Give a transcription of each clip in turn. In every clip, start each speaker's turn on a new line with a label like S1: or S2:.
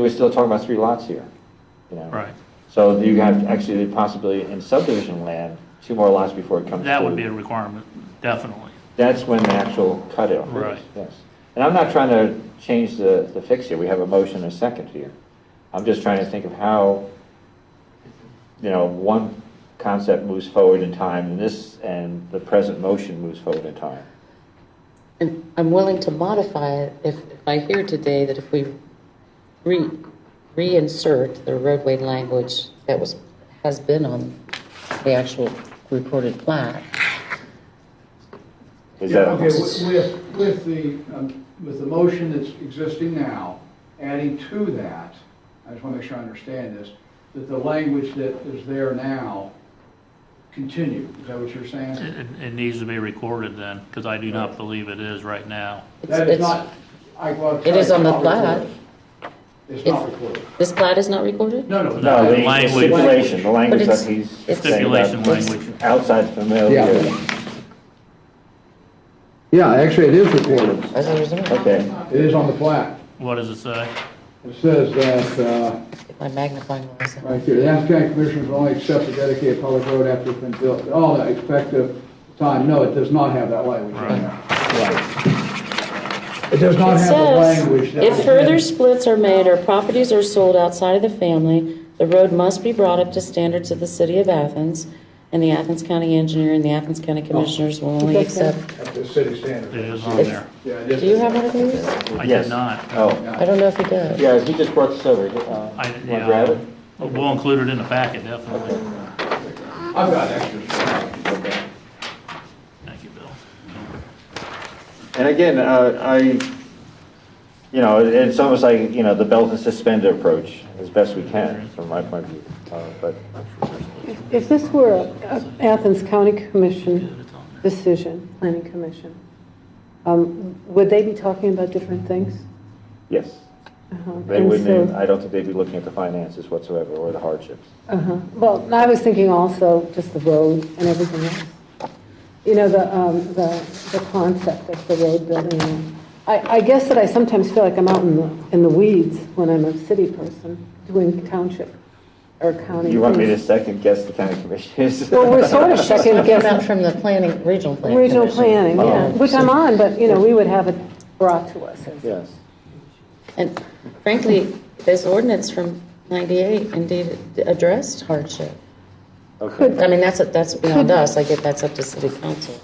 S1: We're still talking about three lots here, you know?
S2: Right.
S1: So you have actually the possibility in subdivision land, two more lots before it comes to.
S2: That would be a requirement, definitely.
S1: That's when the actual cutoff is.
S2: Right.
S1: Yes. And I'm not trying to change the, the fix here. We have a motion and a second here. I'm just trying to think of how, you know, one concept moves forward in time and this, and the present motion moves forward in time.
S3: And I'm willing to modify it if if I hear today that if we re, reinsert the roadway language that was, has been on the actual recorded plat.
S1: Is
S4: Yeah,
S1: that?
S4: okay, with, with- with the, um, with the motion that's existing now, adding to that, I just want to make sure I understand this, that the language that is there now continue, is that what you're saying?
S2: It, it- it needs to be recorded then, because I do not believe it is right now.
S3: It's-
S4: That is
S3: it's-
S4: not, I will tell
S3: It is
S4: you,
S3: on the
S4: it's not recorded.
S3: plat.
S4: It's not
S3: It's-
S4: recorded.
S3: This plat is not recorded?
S4: No, no.
S1: No, the- the
S2: Language.
S1: stipulation, the language
S3: But
S1: that
S3: it's-
S1: he's
S3: it's-
S1: saying about
S2: Stipulation language.
S1: outside familiar.
S5: Yeah. Yeah, actually, it is recorded.
S3: As a result,
S1: Okay,
S5: It is on the plat.
S2: What does it say?
S5: It says that, uh,
S3: my magnifying glass. out.
S5: right here, the Adams County Commissioners will only accept a dedicated public road after it's been built, all the effective time. No, it does not have that language in there. Right. It does
S3: It
S5: not have the
S3: says,
S5: language. that was
S3: if
S5: in-
S3: further splits are made or properties are sold outside of the family, the road must be brought up to standards of the city of Athens, and the Athens County engineer and the Athens
S5: Oh.
S3: County commissioners will only accept.
S5: At the city
S2: It
S5: standard.
S2: is on there.
S5: Yeah, it
S3: Do you have one of these?
S2: I
S1: Yes.
S2: did not.
S1: oh,
S3: I don't know if he does.
S1: yeah, he just brought this over. Uh,
S2: I,
S1: you wanna grab
S2: yeah,
S1: it?
S2: we'll include it in the packet, definitely.
S4: I've got extras.
S2: Thank you, Bill.
S1: And again, uh, I, you know, it- it's almost like, you know, the belt and suspender approach, as best we can, from my point of view. Uh, But,
S6: If this were a Athens County Commission decision, planning commission, um, would they be talking about different things?
S1: yes,
S6: Uh-huh.
S1: they
S6: And
S1: wouldn't,
S6: so-
S1: I don't think they'd be looking at the finances whatsoever, or the hardships.
S6: Uh-huh. Well, I was thinking also just the road and everything else. You know, the, um, the, the concept of the road building. I, I guess that I sometimes feel like I'm out in the, in the weeds when I'm a city person doing township or county.
S1: You want me to
S6: things.
S1: second guess the county commissioners?
S6: Well, we're sort of second
S3: Talking about
S6: guessing
S3: from the planning, regional planning.
S6: regional
S3: commission.
S6: planning, yeah,
S1: Oh.
S6: which I'm on, but, you know, we would have it brought to us. as-
S1: Yes.
S3: And frankly, this ordinance from 98 indeed addressed hardship.
S1: Okay.
S3: I mean, that's, that's beyond us, I get that's up to city council.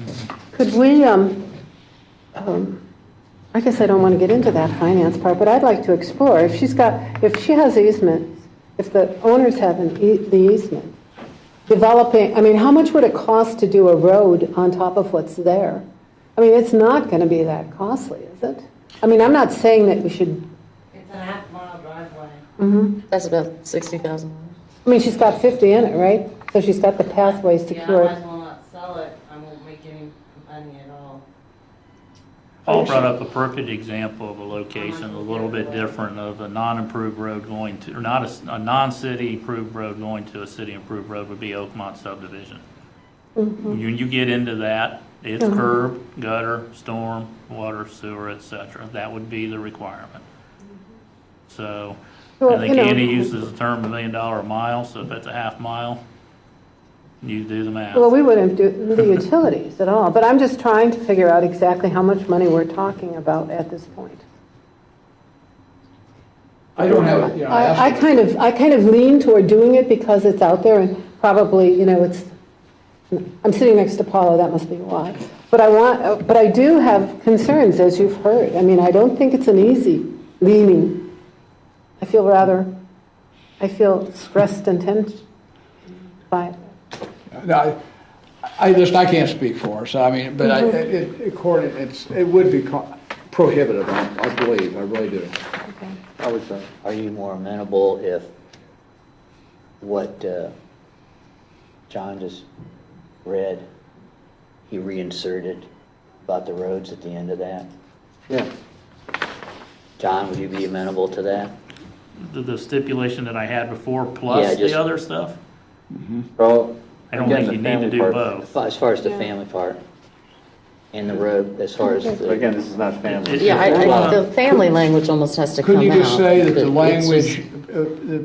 S6: Could we, um, um, I guess I don't want to get into that finance part, but I'd like to explore, if she's got, if she has easements, if the owners have an ea- the easement, developing, I mean, how much would it cost to do a road on top of what's there? I mean, it's not going to be that costly, is it? I mean, I'm not saying that we should,
S7: It's an half mile driveway.
S3: That's about $60,000.
S6: I mean, she's got 50 in it, right? So she's got the pathway
S7: Yeah, I might as
S6: secured.
S7: well not sell it, I won't make any money at all.
S2: Paul brought up a perfect example of a location a little bit different of a non-improved road going to, or not a, s- a non-city improved road going to a city improved road would be Oakmont subdivision.
S6: Mm-hmm.
S2: When you get into that, it's curb, gutter, storm, water, sewer, et cetera. That would be the requirement. So, I
S6: Well,
S2: think
S6: you know-
S2: Andy uses the term a million dollar a mile, so if that's a half mile, you do the math.
S6: Well, we wouldn't do the utilities at all, but I'm just trying to figure out exactly how much money we're talking about at this point.
S4: I don't have, it, you know, I asked-
S6: I, I kind of, I kind of lean toward doing it because it's out there and probably, you know, it's, I'm sitting next to Paula, that must be why. But I want, but I do have concerns, as you've heard. I mean, I don't think it's an easy leaning. I feel rather, I feel stressed and tense by it.
S4: No, I I just, I can't speak for her, so I mean, but I,
S3: Mm-hmm.
S4: it, it- according, it's, it would be co- prohibitive, I I believe, I really do.
S8: I would say, uh, are you more amenable if what uh, John just read, he reinserted about the roads at the end of that?
S1: Yeah.
S8: John, would you be amenable to that?
S2: The- The stipulation that I had before
S8: Yeah,
S2: plus
S8: just-
S2: the other stuff?
S1: Well,
S2: I don't
S1: again,
S2: think you
S1: the
S2: need to
S1: family
S2: do
S1: part-
S2: both.
S8: As far as the family part? in the road as far as
S1: But
S8: the,
S1: Again, this is not family.
S2: It-
S3: Yeah, I, I,
S2: Well-
S3: the family language almost has to come out.
S4: Couldn't you just say that the
S3: It's just-
S4: language, uh, the